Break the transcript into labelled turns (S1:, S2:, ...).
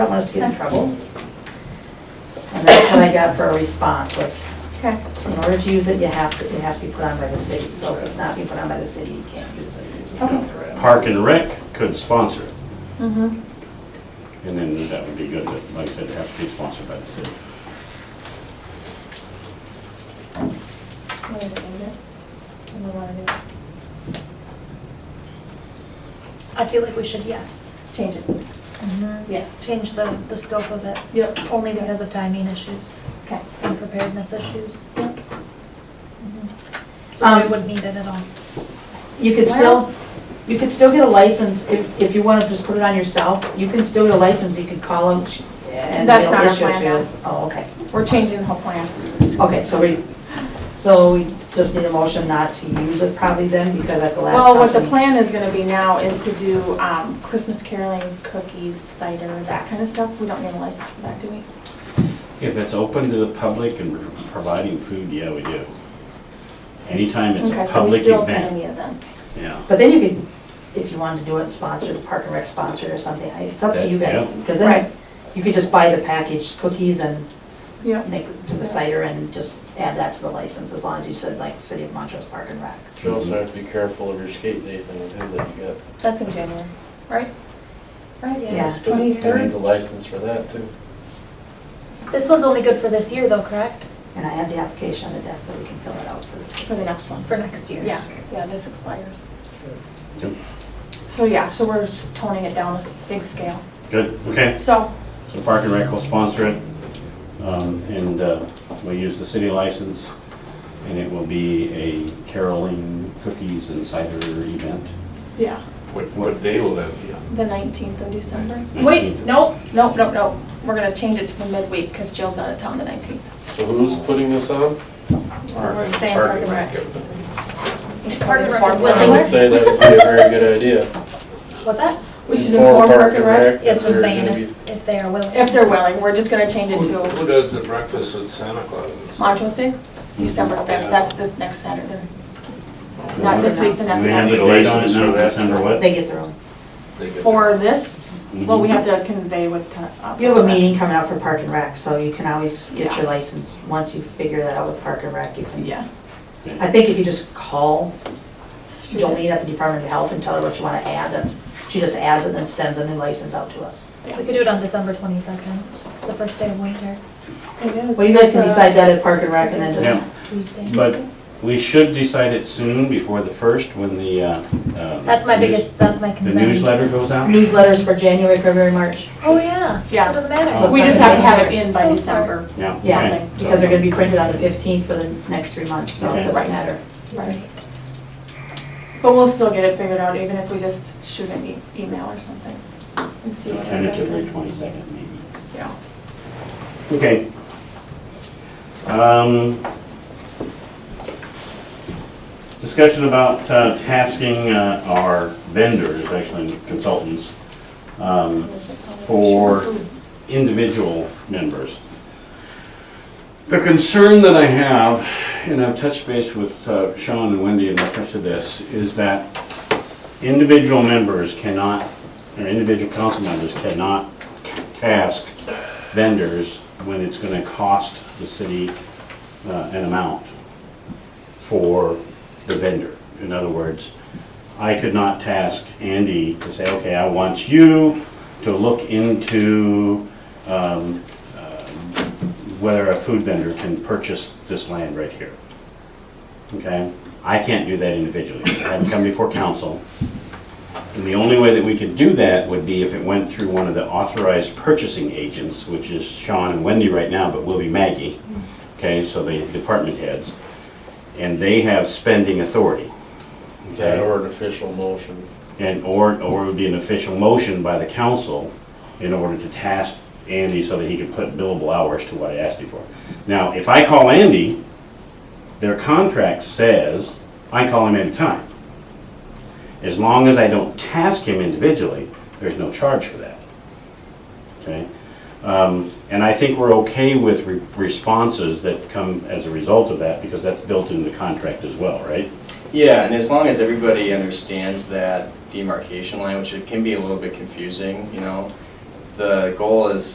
S1: don't want us to get in trouble. And that's what I got for a response, was
S2: Okay.
S1: in order to use it, you have to, it has to be put on by the city. So if it's not being put on by the city, you can't use it.
S3: Park and Rec could sponsor it,
S2: Mm-hmm.
S3: and then that would be good, but like I said, it'd have to be sponsored by the city.
S4: I feel like we should, yes.
S2: Change it. Yeah.
S4: Change the, the scope of it,
S2: Yep.
S4: only because of timing issues
S2: Okay.
S4: and preparedness issues.
S2: Yep.
S4: Mhm. So
S2: Um,
S4: we would need it at all.
S1: You could still, you could still get a license, if, if you want to just put it on yourself, you can still get a license, you could call them and
S2: That's
S1: they'll
S2: not our
S1: issue it
S2: plan,
S1: to you.
S2: no.
S1: Oh, okay,
S2: We're changing the whole plan.
S1: okay, so we, so we just need a motion not to use it probably then, because at the last.
S2: Well, what
S1: council
S2: the plan is gonna be now is to do um, Christmas caroling, cookies, cider, that kind of stuff. We don't need a license for that, do we?
S3: If it's open to the public and we're providing food, yeah, we do. Anytime it's
S2: Okay, so
S3: a
S2: we
S3: public
S2: still kind of
S3: event,
S2: need it then.
S3: yeah.
S1: But then you could, if you wanted to do it, sponsor, Park and Rec sponsor or something, I- it's up to you guys.
S3: Yeah.
S1: Because
S2: Right.
S1: then you could just buy the packaged cookies and
S2: Yeah.
S1: make, do the cider and just add that to the license, as long as you said like City of Montrose Park and Rec.
S5: You also have to be careful of your skate day thing too, that you got,
S2: That's in January, right? Right,
S1: Yeah.
S2: yeah.
S5: you need
S2: Twenty-third?
S5: the license for that too.
S4: This one's only good for this year though, correct?
S1: And I have the application on the desk, so we can fill it out for this.
S2: For the next one.
S4: For next year?
S2: Yeah, yeah, this expires.
S3: Yep.
S2: So, yeah, so we're just toning it down a s- big scale.
S3: Good, okay.
S2: So,
S3: So Park and Rec will sponsor it, um, and uh, we'll use the city license, and it will be a caroling, cookies and cider event.
S2: yeah,
S6: What, what day will that be on?
S2: the 19th of December. Wait,
S3: 19th.
S2: nope, nope, nope, nope. We're gonna change it to the midweek because Jill's out of town the 19th.
S5: So who's putting this on?
S2: We're saying Park and Rec. We should
S4: Park and Rec
S2: inform-
S4: is
S5: I
S4: willing.
S5: would say that would be a very good idea.
S4: What's that?
S2: We should
S5: Inform
S2: inform
S5: Park
S2: Park and
S5: and
S2: Rec.
S5: Rec
S4: That's what
S5: if
S4: I'm
S5: they're
S4: saying,
S5: gonna
S4: if, if they are willing.
S2: If they're willing, we're just gonna change it
S6: Who who
S2: to
S6: does the breakfast with Santa Claus? and stuff?
S2: Montrose Days, December 5th, that's this next Saturday. Not this week, the
S3: Do
S2: next
S3: we have
S2: Saturday.
S3: the date on it
S6: License for
S3: now,
S6: that.
S3: December what? Mm-hmm.
S1: They get their own.
S6: They get-
S2: For this, well, we have to convey with. uh,
S1: You have a meeting coming out for Park and Rec, so you can always get
S2: Yeah.
S1: your license. Once you figure that out with Park and Rec, you can.
S2: Yeah.
S1: I think if you just call Jolene at the Department of Health and tell her what you want to add, that's, she just adds it and sends a new license out to us.
S4: We could do it on December twenty-second, it's the first day of winter,
S2: It is.
S1: Well, you guys can decide that at Park and Rec and then
S3: Yeah.
S1: just,
S4: Tuesday.
S3: But we should decide it soon, before the first, when the, uh, uh,
S4: That's my
S3: news-
S4: biggest, that's my
S3: The
S4: concern.
S3: newsletter goes out?
S1: newsletters for January, February, March.
S4: Oh, yeah. So
S2: Yeah.
S4: it doesn't matter.
S3: Oh,
S2: We just have to have it in by December.
S3: Yeah.
S1: Yeah,
S3: okay.
S1: because they're gonna be printed on the fifteenth for the next three months, so it
S3: Okay.
S1: doesn't matter.
S2: Right. But we'll still get it figured out, even if we just shoot an e- email or something and see what
S3: Tentatively
S2: everybody.
S3: twenty-second, maybe.
S2: Yeah.
S3: Okay. Um, Discussion about uh, tasking uh, our vendors, actually consultants, um, for individual members. The concern that I have, and I've touched base with uh, Sean and Wendy in reference to this, is that individual members cannot, or individual council members cannot task vendors when it's gonna cost the city uh, an amount for the vendor. In other words, I could not task Andy to say, okay, I want you to look into um, uh, whether a food vendor can purchase this land right here. Okay? I can't do that individually. I haven't come before council. And the only way that we could do that would be if it went through one of the authorized purchasing agents, which is Sean and Wendy right now, but will be Maggie. Okay, so the department heads. And they have spending authority.
S5: That or an official motion.
S3: And, or, or it would be an official motion by the council in order to task Andy so that he could put billable hours to what I asked him for. Now, if I call Andy, their contract says, I call him anytime. As long as I don't task him individually, there's no charge for that. Okay? Um, And I think we're okay with re- responses that come as a result of that, because that's built into the contract as well, right?
S7: Yeah, and as long as everybody understands that demarcation line, which it can be a little bit confusing, you know, the goal is